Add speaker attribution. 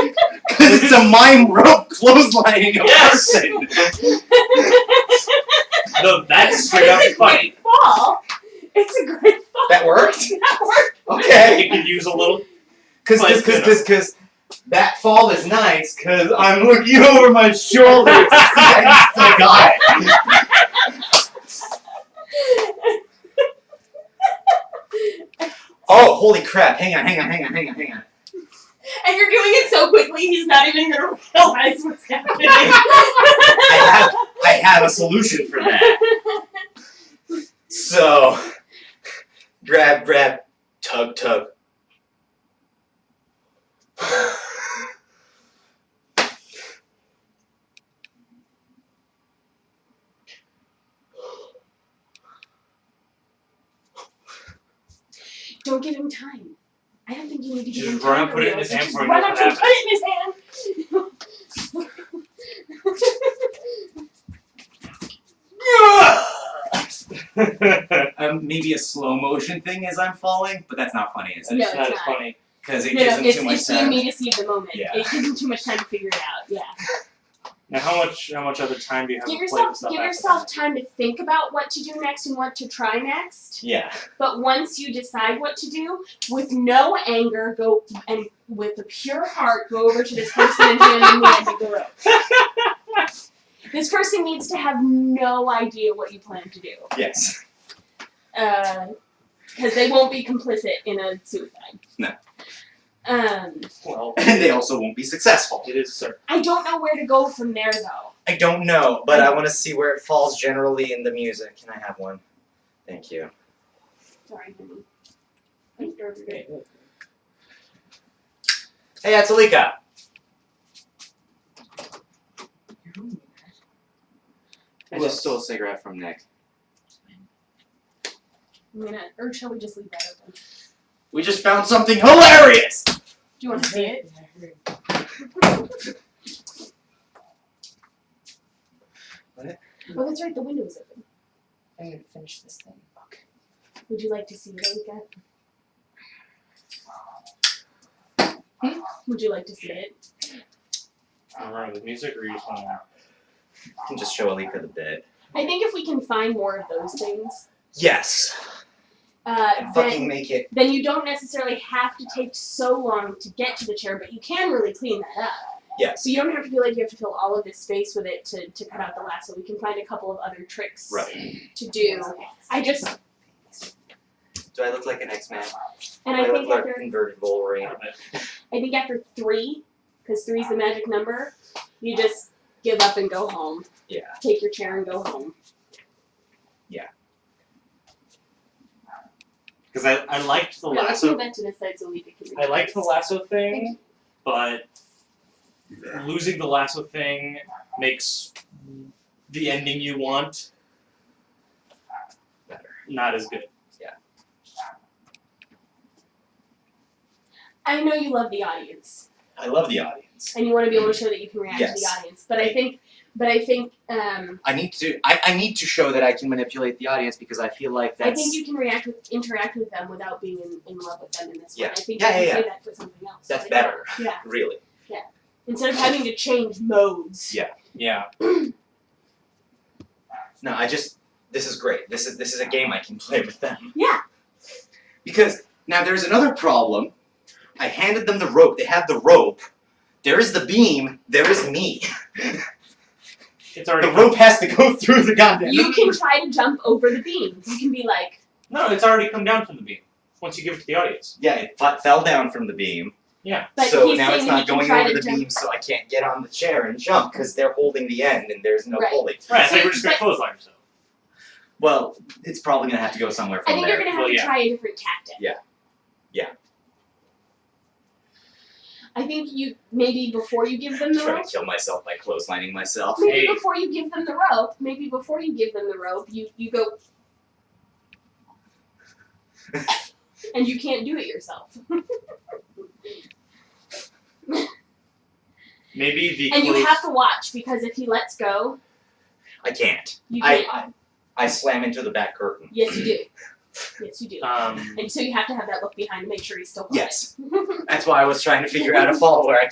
Speaker 1: Because it's a mime rope clotheslining a
Speaker 2: Yes.
Speaker 1: person.
Speaker 2: No, that's straight up
Speaker 3: it's a
Speaker 2: funny.
Speaker 3: great fall. It's a great fall.
Speaker 1: That worked?
Speaker 3: That worked.
Speaker 1: Okay.
Speaker 2: You could use a little.
Speaker 1: Because
Speaker 2: Like,
Speaker 1: cause, cause,
Speaker 2: you know.
Speaker 1: cause, 'cause that fall is nice because I'm looking over my shoulder to see I still got it. Oh, holy crap. Hang on, hang on, hang on, hang on, hang on.
Speaker 3: And you're doing it so quickly, he's not even gonna realize what's happening.
Speaker 1: I have, I have a solution for that. So, grab, grab, tug, tug.
Speaker 3: Don't give him time. I don't think you need to give
Speaker 2: Just
Speaker 3: him time.
Speaker 2: run and
Speaker 3: for
Speaker 2: put it in his
Speaker 3: this.
Speaker 2: hand
Speaker 3: Just
Speaker 2: for him
Speaker 3: run
Speaker 2: to
Speaker 3: up
Speaker 2: have
Speaker 3: and put it in his hand.
Speaker 1: um, Uh, maybe a slow motion thing as I'm falling, but that's not funny, is it?
Speaker 3: No,
Speaker 2: It's
Speaker 3: it's
Speaker 2: not as
Speaker 3: not.
Speaker 2: funny.
Speaker 1: Because it
Speaker 3: no,
Speaker 1: gives
Speaker 3: no,
Speaker 1: him
Speaker 3: it's,
Speaker 1: too much
Speaker 3: it's
Speaker 1: time.
Speaker 3: you need to see the moment.
Speaker 1: Yeah.
Speaker 3: It gives him too much time to figure it out. Yeah.
Speaker 2: Now, how much how much other time do you have
Speaker 3: Give
Speaker 2: to play
Speaker 3: yourself
Speaker 2: this up
Speaker 3: give
Speaker 2: after
Speaker 3: yourself
Speaker 2: that?
Speaker 3: time to think about what to do next and what to try next.
Speaker 1: Yeah.
Speaker 3: But once you decide what to do, with no anger, go and with a pure heart, go over to this person and hand them the end of the rope. This person needs to have no idea what you plan to do,
Speaker 1: Yes.
Speaker 3: because they won't be complicit in a suicide.
Speaker 1: No.
Speaker 3: Um,
Speaker 2: Well,
Speaker 1: And they also won't be successful.
Speaker 2: it is sir.
Speaker 3: I don't know where to go from there though.
Speaker 1: I don't know, but I want to see where it falls generally in the music. Can I have one? Thank you.
Speaker 3: Sorry, honey. I'm sorry.
Speaker 1: Hey, that's Alika.
Speaker 4: I just stole a cigarette from Nick.
Speaker 3: I'm gonna, or shall we just leave that open? Do
Speaker 1: We just found something hilarious.
Speaker 3: you want to see it? Oh, that's right. The window is open.
Speaker 4: I need to finish this thing.
Speaker 3: Would you like to see it, Alika? Hmm? Would you like to see it?
Speaker 2: I don't remember the music or you just want to out.
Speaker 1: You can just show Alika the bit.
Speaker 3: I think if we can find more of those things,
Speaker 1: Yes.
Speaker 3: uh,
Speaker 1: Fucking
Speaker 3: then
Speaker 1: make it.
Speaker 3: then you don't necessarily have to take so long to get to the chair, but you can really clean that up.
Speaker 1: Yes.
Speaker 3: So you don't have to feel like you have to fill all of this space with it to, to cut out the lasso. We can find a couple of other tricks
Speaker 1: Right.
Speaker 3: to do. I just
Speaker 4: Do I look like an X-Man?
Speaker 3: and
Speaker 1: I
Speaker 3: I
Speaker 1: look
Speaker 3: think
Speaker 1: like
Speaker 3: after
Speaker 1: inverted Wolverine.
Speaker 3: I think after three, because three's the magic number, you just give up and go home.
Speaker 1: Yeah.
Speaker 3: Take your chair and go home.
Speaker 2: Because I, I liked
Speaker 1: Oh,
Speaker 2: the
Speaker 3: Yeah, let's move
Speaker 2: lasso.
Speaker 3: that to this side so we can.
Speaker 2: I liked the lasso thing, but losing the lasso thing makes the ending you want
Speaker 1: Better.
Speaker 2: not as good.
Speaker 3: I know you love the audience
Speaker 1: I love the audience.
Speaker 3: and you want to be able to show that you can react to the
Speaker 1: Yes.
Speaker 3: audience, but I think, but I think, um,
Speaker 4: I need to. I, I need to show that I can manipulate the audience because I feel like
Speaker 3: I think you can react with interact with them without being in, in love with them in this
Speaker 1: Yeah.
Speaker 3: one. I think
Speaker 1: Yeah,
Speaker 3: you
Speaker 1: yeah,
Speaker 3: can say that for something else.
Speaker 1: That's
Speaker 3: Like,
Speaker 1: better.
Speaker 3: Yeah.
Speaker 1: Really.
Speaker 3: Instead of having to change modes.
Speaker 1: Yeah.
Speaker 2: Yeah.
Speaker 1: No, I just. This is great. This is this is a game I can play with them.
Speaker 3: Yeah.
Speaker 1: Because now there's another problem. I handed them the rope. They have the rope. There is the beam. There is me.
Speaker 2: It's already
Speaker 1: The rope has to go through the goddamn.
Speaker 3: You can try to jump over the beam. You can be like,
Speaker 2: No, it's already come down from the beam. Once you give it to the audience.
Speaker 1: Yeah, it fa- fell down from the beam.
Speaker 3: but
Speaker 1: so
Speaker 3: he's
Speaker 1: now
Speaker 3: saying
Speaker 1: it's
Speaker 3: that
Speaker 1: not
Speaker 3: you can
Speaker 1: going
Speaker 3: try
Speaker 1: over
Speaker 3: to
Speaker 1: the
Speaker 3: jump.
Speaker 1: beam, so I can't get on the chair and jump because they're holding the end and there's no
Speaker 3: Right.
Speaker 1: pulley.
Speaker 2: Right, I think we're just gonna
Speaker 3: But-
Speaker 2: close like so.
Speaker 1: Well, it's probably gonna have to go somewhere
Speaker 3: I
Speaker 1: from
Speaker 3: think
Speaker 1: there.
Speaker 3: you're gonna have
Speaker 2: Well,
Speaker 3: to
Speaker 2: yeah.
Speaker 3: try a different tactic.
Speaker 1: Yeah. Yeah.
Speaker 3: I think you maybe before you give them the
Speaker 1: Trying
Speaker 3: rope,
Speaker 1: to kill myself by clotheslining myself.
Speaker 3: maybe
Speaker 2: Hey.
Speaker 3: before you give them the rope, maybe before you give them the rope, you you go, and you can't do it yourself,
Speaker 2: Maybe the
Speaker 3: and you
Speaker 2: close-
Speaker 3: have to watch because if he lets go,
Speaker 1: I can't.
Speaker 3: you
Speaker 1: I,
Speaker 3: can't.
Speaker 1: I I slam into the back curtain.
Speaker 3: yes, you do. Yes, you do.
Speaker 2: um
Speaker 3: and so you have to have that look behind to make sure he's still. holding.
Speaker 1: Yes. That's why I was trying to figure out a fall where I